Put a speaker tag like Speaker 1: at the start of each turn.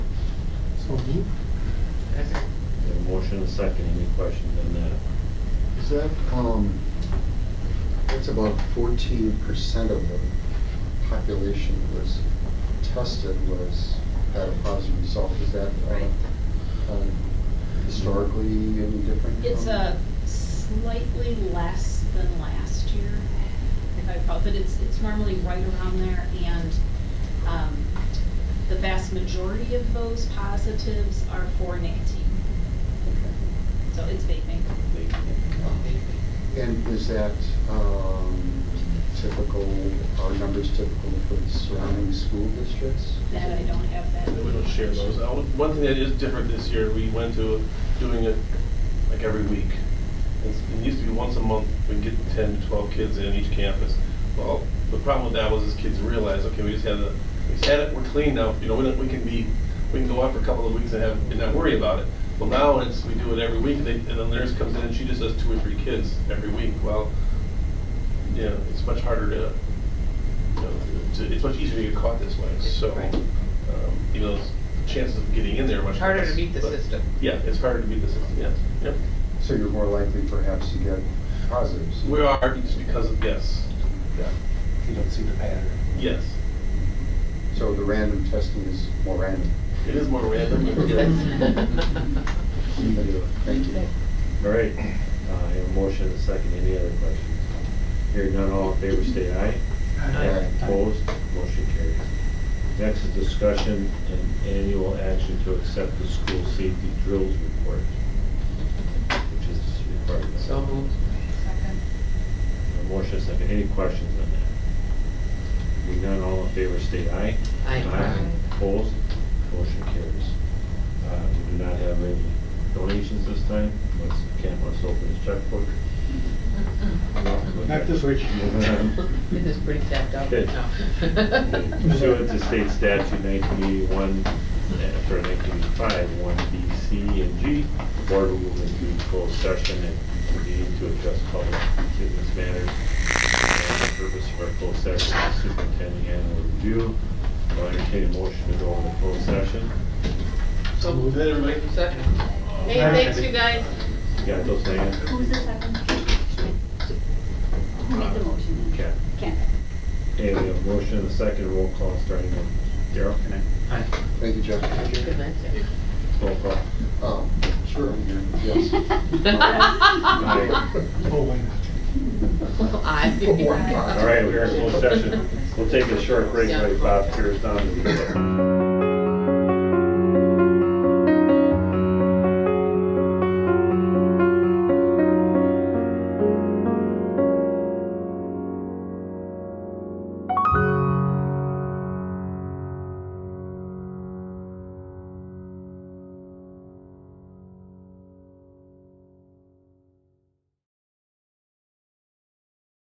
Speaker 1: Mhm.
Speaker 2: Yeah, Motion and second, any questions on that?
Speaker 3: Is that, um, that's about fourteen percent of the population was tested was, had a positive result. Is that,
Speaker 4: Right.
Speaker 3: uh, um, historically any different?
Speaker 4: It's
Speaker 3: from-
Speaker 4: a slightly less than last year, if I recall, but it's, it's normally right around there. And um, the vast majority of those positives are for nicotine, so it's vaping.
Speaker 3: And is that, um, typical, are numbers typical for the surrounding school districts?
Speaker 4: That I don't have that.
Speaker 5: We don't share those. Uh, One thing that is different this year, we went to doing it like every week. It's- It used to be once a month, we'd get ten to twelve kids in each campus. Well, the problem with that was is kids realized, okay, we just had the, we just had it, we're clean now, you know, we don't- we can be, we can go out for a couple of weeks and have, and not worry about it. Well, now it's, we do it every week, and they- and the nurse comes in and she just does two or three kids every week. Well, you know, it's much harder to, you know, to- it's much easier to get caught this way, so.
Speaker 6: Right.
Speaker 5: um, Even though it's- chances of getting in there are much
Speaker 6: It's
Speaker 5: less.
Speaker 6: harder to beat the
Speaker 5: but-
Speaker 6: system.
Speaker 5: Yeah, it's harder to beat the system, yes, yep.
Speaker 3: So you're more likely perhaps to get positives?
Speaker 5: We are just because of, yes, yeah,
Speaker 7: You don't see the pattern.
Speaker 5: yes.
Speaker 3: So the random testing is more random?
Speaker 5: It is more random.
Speaker 3: Thank you.
Speaker 2: All right, uh, I have a motion and second, any other questions? Hearing none, all in favor, say aye. Opposed, motion carries. Next is discussion and annual action to accept the school safety drills report, which is required. by-
Speaker 6: So moved.
Speaker 2: A Motion and second, any questions on that? Hearing none, all in favor, state aye.
Speaker 6: Aye.
Speaker 2: Opposed, motion carries. Uh, We do not have any donations this time, let's, Ken wants to open his checkbook.
Speaker 7: Not this week.
Speaker 6: It is pretty tapped out
Speaker 2: Good.
Speaker 6: right now.
Speaker 2: Pursuant to state statute nineteen eighty-one, uh, for nineteen eighty-five, one B, C, and G, the board will move into closed session and convene to address public business matters. And the purpose of our closed session is superintendent annual review. I'll entertain a motion to go into closed session.
Speaker 6: So moved.
Speaker 5: Hey, everybody.
Speaker 6: Second.
Speaker 7: Hey, thanks,
Speaker 6: you guys.
Speaker 2: You got those, Diane?
Speaker 8: Who was the second? Who made the motion? then?
Speaker 2: Okay.
Speaker 8: Ken.
Speaker 2: Hey, we have a motion and a second roll call starting with Daryl.
Speaker 6: Aye.
Speaker 3: Thank you, Jeff.
Speaker 6: Good night, Sam.
Speaker 2: Roll call.
Speaker 3: Um, Sure, I'm here, yes.
Speaker 2: Aye.
Speaker 7: Oh, wait.
Speaker 6: Aye.
Speaker 2: All right, we're in closed session. We'll take a short break, while Bob tears down the